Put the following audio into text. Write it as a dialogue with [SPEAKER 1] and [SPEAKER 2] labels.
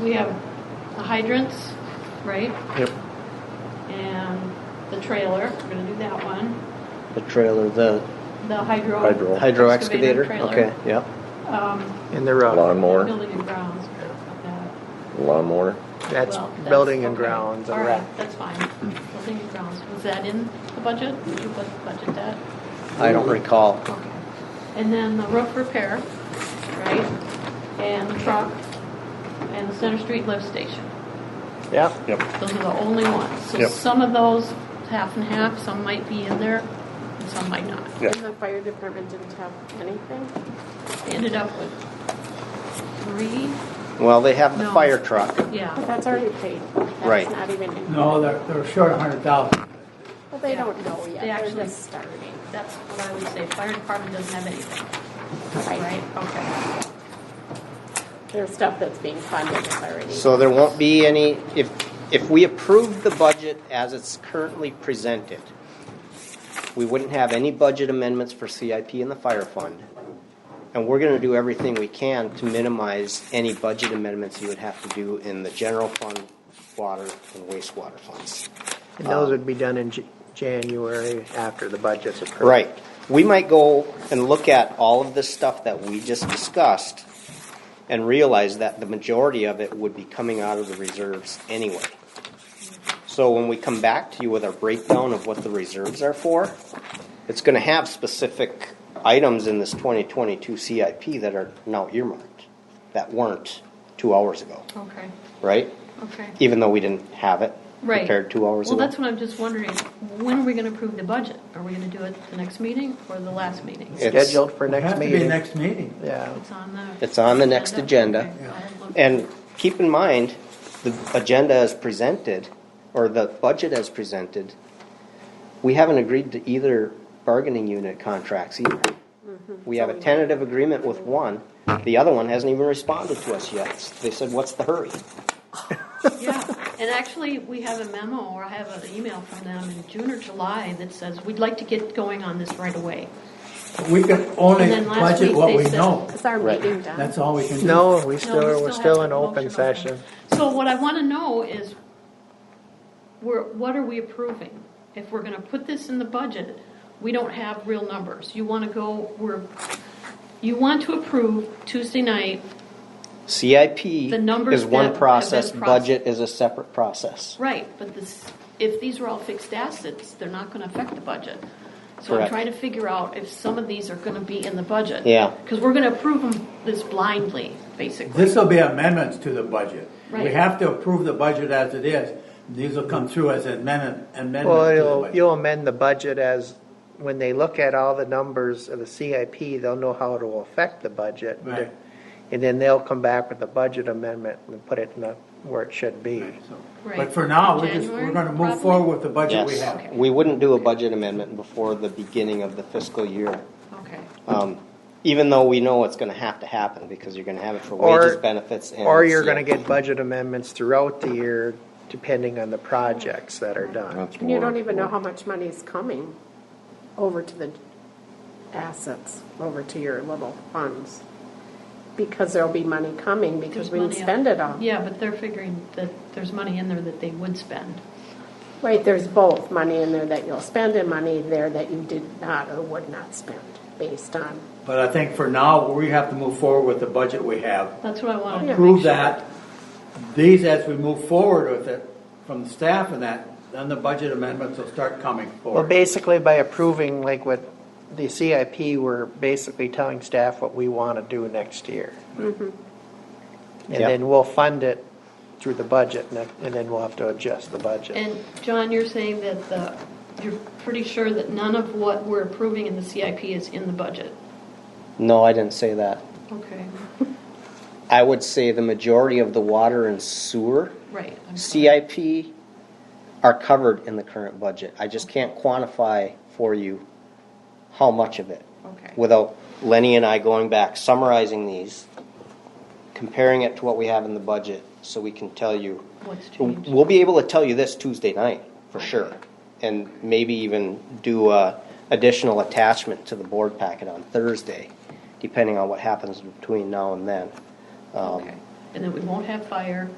[SPEAKER 1] we have the hydrants, right?
[SPEAKER 2] Yep.
[SPEAKER 1] And the trailer, we're gonna do that one,
[SPEAKER 2] The trailer, the
[SPEAKER 1] the hydro.
[SPEAKER 3] Hydro.
[SPEAKER 2] hydro excavator?
[SPEAKER 1] trailer.
[SPEAKER 2] Okay, yep.
[SPEAKER 1] Um,
[SPEAKER 4] And they're, uh,
[SPEAKER 3] Lawnmower,
[SPEAKER 1] building and grounds, like that.
[SPEAKER 3] lawnmower.
[SPEAKER 4] that's
[SPEAKER 1] Well,
[SPEAKER 4] building and
[SPEAKER 1] okay.
[SPEAKER 4] grounds,
[SPEAKER 1] All
[SPEAKER 4] all
[SPEAKER 1] right,
[SPEAKER 4] right.
[SPEAKER 1] that's fine. Building and grounds, was that in the budget? Did you bu- budget that?
[SPEAKER 2] I don't recall.
[SPEAKER 1] Okay. And then the roof repair, right? And the truck, and the Center Street lift station.
[SPEAKER 4] Yep,
[SPEAKER 3] Yep.
[SPEAKER 1] Those are the only ones. So
[SPEAKER 3] Yep.
[SPEAKER 1] some of those, half and half, some might be in there, and some might not.
[SPEAKER 3] Yeah.
[SPEAKER 5] And the fire department didn't have anything?
[SPEAKER 1] They Ended up with three,
[SPEAKER 2] Well, they have the
[SPEAKER 1] No.
[SPEAKER 2] fire truck.
[SPEAKER 5] But
[SPEAKER 1] yeah.
[SPEAKER 5] that's already paid.
[SPEAKER 2] Right.
[SPEAKER 5] That's not even in.
[SPEAKER 6] No, they're, they're short a hundred thousand.
[SPEAKER 5] Well, they don't know
[SPEAKER 1] They
[SPEAKER 5] yet.
[SPEAKER 1] actually-
[SPEAKER 5] They're just starting.
[SPEAKER 1] That's what I would say. Fire department doesn't have anything,
[SPEAKER 5] Right.
[SPEAKER 1] right? Okay.
[SPEAKER 5] There's stuff that's being funded that's already.
[SPEAKER 2] So there won't be any, if, if we approve the budget as it's currently presented, we wouldn't have any budget amendments for CIP and the fire fund. And we're gonna do everything we can to minimize any budget amendments you would have to do in the general fund, water, and wastewater funds.
[SPEAKER 4] and
[SPEAKER 2] Um,
[SPEAKER 4] those would be done in J- January after the budget's approved.
[SPEAKER 2] Right. We might go and look at all of this stuff that we just discussed and realize that the majority of it would be coming out of the reserves anyway. So when we come back to you with our breakdown of what the reserves are for, it's gonna have specific items in this twenty twenty-two CIP that are now earmarked, that weren't two hours ago,
[SPEAKER 1] Okay,
[SPEAKER 2] right?
[SPEAKER 1] okay.
[SPEAKER 2] Even though we didn't have it
[SPEAKER 1] Right.
[SPEAKER 2] prepared two hours
[SPEAKER 1] Well,
[SPEAKER 2] ago.
[SPEAKER 1] that's what I'm just wondering. When are we gonna approve the budget? Are we gonna do it the next meeting or the last meeting?
[SPEAKER 2] It's-
[SPEAKER 4] Scheduled for
[SPEAKER 6] It has
[SPEAKER 4] next
[SPEAKER 6] to be
[SPEAKER 4] meeting.
[SPEAKER 6] next meeting.
[SPEAKER 4] Yeah,
[SPEAKER 1] It's on the.
[SPEAKER 2] It's on the next agenda.
[SPEAKER 1] Okay, I'll look.
[SPEAKER 2] And keep in mind, the agenda as presented, or the budget as presented, we haven't agreed to either bargaining unit contracts either.
[SPEAKER 1] Mm-hmm.
[SPEAKER 2] We have a tentative agreement with one, the other one hasn't even responded to us yet. They said, what's the hurry?
[SPEAKER 1] Yeah, and actually, we have a memo or I have an email from them in June or July that says, we'd like to get going on this right away.
[SPEAKER 6] We can only
[SPEAKER 1] And then last
[SPEAKER 6] budget
[SPEAKER 1] week
[SPEAKER 6] what
[SPEAKER 1] they
[SPEAKER 6] we
[SPEAKER 1] said-
[SPEAKER 6] know.
[SPEAKER 5] Is our
[SPEAKER 2] Right.
[SPEAKER 5] meeting done?
[SPEAKER 6] That's all we can do.
[SPEAKER 4] no, we
[SPEAKER 1] No,
[SPEAKER 4] still,
[SPEAKER 1] we
[SPEAKER 4] we're
[SPEAKER 1] have
[SPEAKER 4] still in
[SPEAKER 1] a
[SPEAKER 4] open
[SPEAKER 1] motion on
[SPEAKER 4] session.
[SPEAKER 1] that. So what I want to know is, we're, what are we approving? If we're going to put this in the budget, we don't have real numbers. You want to go, we're, you want to approve Tuesday night,
[SPEAKER 2] CIP
[SPEAKER 1] The numbers
[SPEAKER 2] is
[SPEAKER 1] that
[SPEAKER 2] one
[SPEAKER 1] have
[SPEAKER 2] process,
[SPEAKER 1] been
[SPEAKER 2] budget is a separate process.
[SPEAKER 1] right, but this, if these are all fixed assets, they're not going to affect the budget. So I'm
[SPEAKER 2] Correct.
[SPEAKER 1] trying to figure out if some of these are going to be in the budget.
[SPEAKER 2] Yeah.
[SPEAKER 1] Because we're going to approve them this blindly, basically.
[SPEAKER 6] This will be amendments to the budget. We
[SPEAKER 1] Right.
[SPEAKER 6] have to approve the budget as it is. These will come through as amendment,
[SPEAKER 4] Well,
[SPEAKER 6] amendments to the
[SPEAKER 4] you'll,
[SPEAKER 6] budget.
[SPEAKER 4] you'll amend the budget as, when they look at all the numbers of the CIP, they'll know how it'll affect the budget.
[SPEAKER 6] Right.
[SPEAKER 4] And then they'll come back with a budget amendment and put it in the, where it should be.
[SPEAKER 6] So-
[SPEAKER 1] Right.
[SPEAKER 6] But for now, we're just,
[SPEAKER 1] January,
[SPEAKER 6] we're gonna move
[SPEAKER 1] probably?
[SPEAKER 6] forward with the budget we
[SPEAKER 2] Yes,
[SPEAKER 6] have.
[SPEAKER 2] we wouldn't do a budget amendment before the beginning of the fiscal year.
[SPEAKER 1] Okay,
[SPEAKER 2] um, even though we know it's going to have to happen because you're going to have it for
[SPEAKER 4] Or-
[SPEAKER 2] wages, benefits, and uh,
[SPEAKER 4] Or you're
[SPEAKER 2] CIP.
[SPEAKER 4] gonna get budget amendments throughout the year, depending on the projects that are done.
[SPEAKER 3] That's
[SPEAKER 5] And you
[SPEAKER 3] more-
[SPEAKER 5] don't even know how much money is coming over to the assets, over to your little funds. Because there'll be money coming
[SPEAKER 1] There's
[SPEAKER 5] because we didn't
[SPEAKER 1] money out-
[SPEAKER 5] spend it all.
[SPEAKER 1] yeah, but they're figuring that there's money in there that they would spend.
[SPEAKER 5] Right, there's both money in there that you'll spend and money there that you did not or would not spend based on.
[SPEAKER 6] But I think for now, we have to move forward with the budget we have.
[SPEAKER 1] That's what I wanted to Oh, make
[SPEAKER 6] Approve
[SPEAKER 1] sure.
[SPEAKER 6] that. These, as we move forward with it, from the staff and that, then the budget amendments will start coming
[SPEAKER 4] Well,
[SPEAKER 6] forward.
[SPEAKER 4] basically by approving like what the CIP, we're basically telling staff what we wanna do next year. And
[SPEAKER 2] Yep.
[SPEAKER 4] then we'll fund it through the budget and then- and then we'll have to adjust the budget.
[SPEAKER 1] And John, you're saying that the, you're pretty sure that none of what we're approving in the CIP is in the budget?
[SPEAKER 2] No, I didn't say that.
[SPEAKER 1] Okay,
[SPEAKER 2] I would say the majority of the water and sewer
[SPEAKER 1] right. I'm sorry.
[SPEAKER 2] CIP are covered in the current budget. I just can't quantify for you how much of it.
[SPEAKER 1] Okay.
[SPEAKER 2] Without Lenny and I going back, summarizing these, comparing it to what we have in the budget, so we can tell you.
[SPEAKER 1] What's changed?
[SPEAKER 2] We'll be able to tell you this Tuesday night, for sure. And maybe even do a additional attachment to the board packet on Thursday, depending on what happens between now and then. Um,
[SPEAKER 1] Okay. and then we won't have fire,